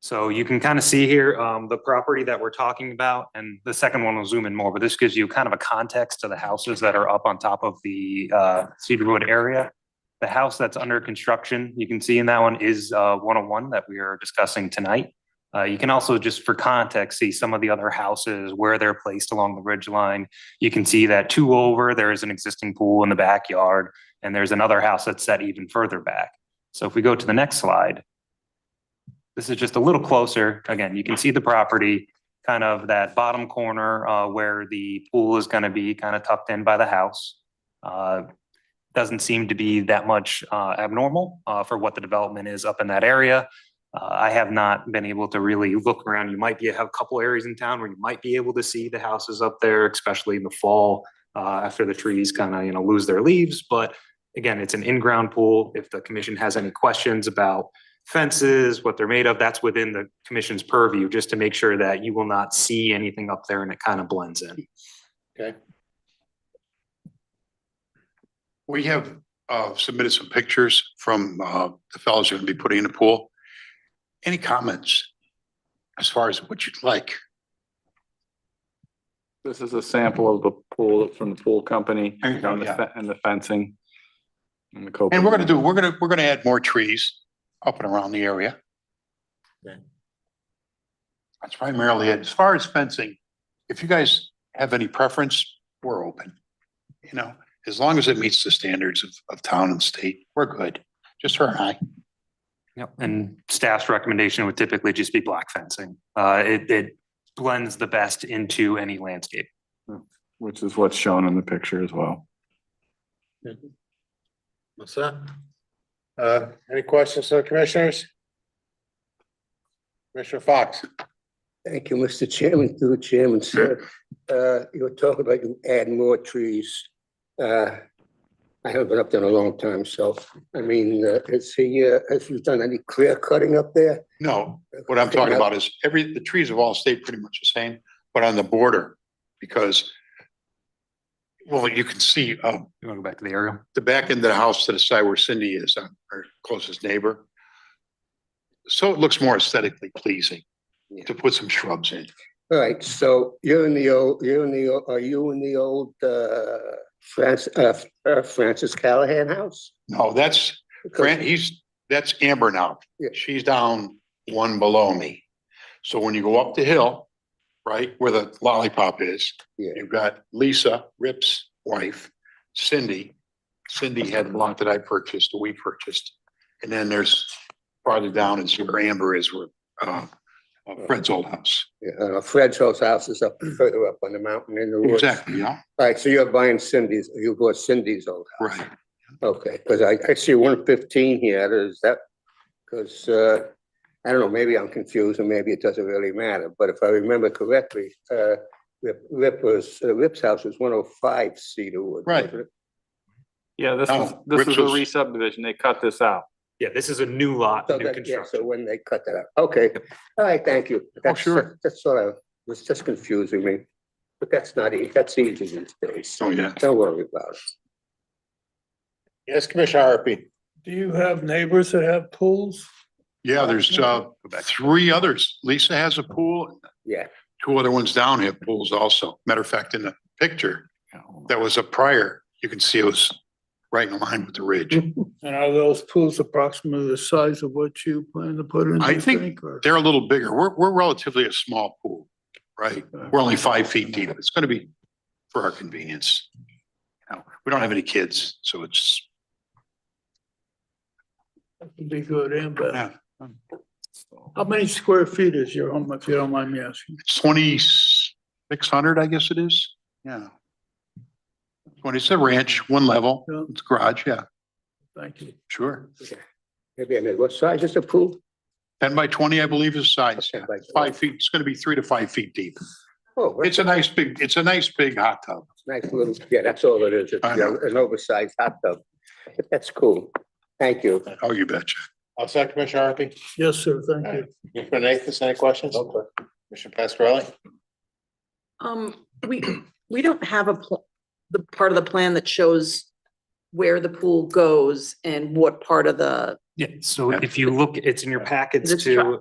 So you can kind of see here, um, the property that we're talking about, and the second one will zoom in more, but this gives you kind of a context to the houses that are up on top of the, uh, Cedarwood area. The house that's under construction, you can see in that one is, uh, one oh one that we are discussing tonight. Uh, you can also, just for context, see some of the other houses, where they're placed along the ridge line. You can see that two over, there is an existing pool in the backyard, and there's another house that's set even further back. So if we go to the next slide, this is just a little closer. Again, you can see the property, kind of that bottom corner uh, where the pool is going to be kind of tucked in by the house. Uh, Doesn't seem to be that much uh, abnormal uh, for what the development is up in that area. Uh, I have not been able to really look around. You might be, have a couple areas in town where you might be able to see the houses up there, especially in the fall uh, after the trees kind of, you know, lose their leaves. But again, it's an in-ground pool. If the commission has any questions about fences, what they're made of, that's within the commission's purview, just to make sure that you will not see anything up there and it kind of blends in. We have uh, submitted some pictures from uh, the fellows who are going to be putting in the pool. Any comments as far as what you'd like? This is a sample of the pool from the pool company There you go, and the yeah. fe- and the fencing. And the And we're going to coping. do, we're going to, we're going to add more trees up and around the area. That's primarily it. As far as fencing, if you guys have any preference, we're open. You know, as long as it meets the standards of, of town and state, we're good. Just her and I. Yep. And staff's recommendation would typically just be black fencing. Uh, it, it blends the best into any landscape. Which is what's shown in the picture as well. What's that? Uh, any questions, uh, commissioners? Commissioner Fox, Thank you, Mr. Chairman, through the chairman, sir. Uh, you were talking about you add more trees. Uh, I haven't been up there in a long time, so, I mean, uh, has he, uh, has you done any clear cutting up there? No, What I'm talking about is every, the trees have all stayed pretty much the same, but on the border, because well, you can see uh You want to go back to the aerial? the back end of the house to the side where Cindy is, uh, her closest neighbor. So it looks more aesthetically pleasing to put some shrubs in. All right, so you're in the old, you're in the, o- are you in the old, uh, Francis, uh, uh, Francis Callahan house? No, that's, Because- Grant, he's, that's Amber now. Yeah. She's down one below me. So when you go up the hill, right, where the lollipop is, Yeah. you've got Lisa Rip's wife, Cindy. Cindy had a lot that I purchased, we purchased. And then there's farther down is where Amber is, where, uh, uh, Fred's old house. Yeah, I know, Fred's old house is up further up on the mountain in the woods. Exactly, yeah, All right, so you're buying Cindy's, you bought Cindy's old house? right. Okay, because I, I see one fifteen here, is that, because, uh, I don't know, maybe I'm confused, and maybe it doesn't really matter, but if I remember correctly, uh, Rip, Rip was, uh, Rip's house was one oh five Cedarwood. Right. wasn't it? Yeah, this No, is, this Rips is a was- re-subdivision. They cut this out. Yeah, this is a new lot, So new that, yeah, so construction. when they cut that out, okay, all right, thank you. That's- Oh, sure. That's what I, was just confusing me, but that's not, e- that's easy these days, Oh, yeah. don't worry about it. yes, Commissioner Harpy, Do you have neighbors that have pools? Yeah, there's, uh, three others. Lisa has a pool. Yeah. Two other ones down have pools also. Matter of fact, in the picture that was a prior, you can see it was right in line with the ridge. And are those pools approximately the size of what you plan to put in? I do you think or- They're a little bigger. We're, we're relatively a small pool, right? We're only five feet deep. It's gonna be for our convenience. You know, We don't have any kids, so it's, That would Be good and bad. Yeah. How many square feet is your home, if you don't mind me asking? it's twenty-six hundred, I guess it is. Yeah. Twenty, it's a ranch, one level, Yeah. it's garage, yeah, Thank you. sure. Maybe I made, what size is the pool? Ten by twenty, I believe is size, yeah. Like, five feet, it's gonna be three to five feet deep. Oh, It's a nice big, it's a nice big hot tub. Nice little, yeah, that's all it is. It's I know. an oversized hot tub. That's cool. Thank you. Oh, you betcha. I'll second Commissioner Harpy. Yes, sir, thank you. Commissioner Nathan, any questions? Commissioner Pascarelli? Um, we, we don't have a, pl- the part of the plan that shows where the pool goes and what part of the Yeah, so if you look, it's in your packets It's too.